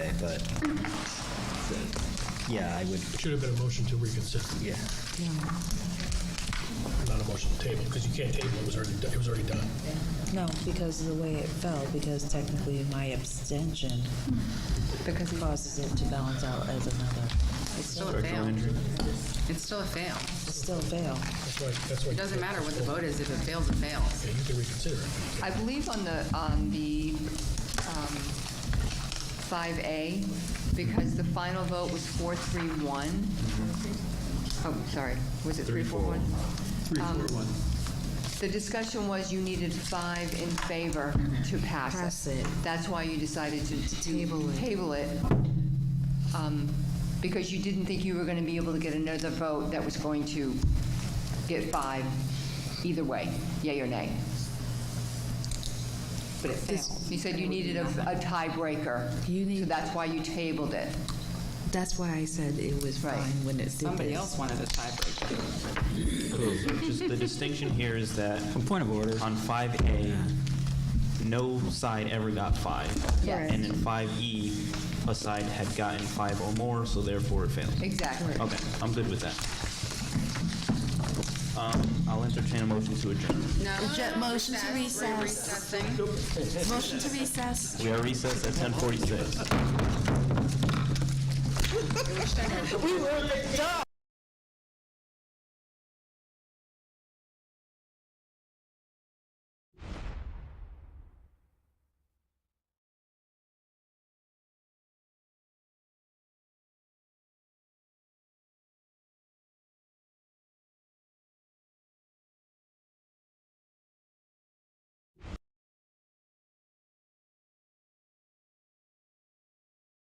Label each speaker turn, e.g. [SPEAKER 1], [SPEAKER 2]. [SPEAKER 1] but, so, yeah, I would,
[SPEAKER 2] Should have been a motion to reconsider,
[SPEAKER 1] yeah.
[SPEAKER 2] not a motion to table, because you can't table, it was already, it was already done.
[SPEAKER 3] No, because of the way it fell, because technically my abstention causes it to balance out as another. It's
[SPEAKER 4] Still
[SPEAKER 3] still,
[SPEAKER 4] a fail. It's still a fail.
[SPEAKER 3] it's still a fail.
[SPEAKER 2] That's why, that's why.
[SPEAKER 4] It doesn't matter what the vote is, if it fails, it fails.
[SPEAKER 2] Yeah, you can reconsider it.
[SPEAKER 5] I believe on the, on the um, 5A, because the final vote was 431. Oh, sorry, was it 341? 341. Um, The discussion was you needed five in favor to pass it.
[SPEAKER 3] Pass it.
[SPEAKER 5] That's why you decided to to
[SPEAKER 3] Table it.
[SPEAKER 5] Table it, um, because you didn't think you were going to be able to get another vote that was going to get five either way, yea or nay. But it failed. You said you needed a a tiebreaker,
[SPEAKER 3] You
[SPEAKER 5] so
[SPEAKER 3] need-
[SPEAKER 5] that's why you tabled it.
[SPEAKER 3] That's why I said it was
[SPEAKER 5] Right.
[SPEAKER 3] fine when it did
[SPEAKER 4] Somebody
[SPEAKER 3] this.
[SPEAKER 4] else wanted a tiebreaker.
[SPEAKER 6] Just the distinction here is that. Point of order. On 5A, no side ever got five.
[SPEAKER 5] Yes.
[SPEAKER 6] And in 5E, a side had gotten five or more, so therefore it fails.
[SPEAKER 5] Exactly.
[SPEAKER 6] Okay, I'm good with that. Um, I'll entertain a motion to adjourn.
[SPEAKER 4] No.
[SPEAKER 7] motion to recess.
[SPEAKER 4] Recessing.
[SPEAKER 7] Motion to recess.
[SPEAKER 6] We are recessed at 10:46.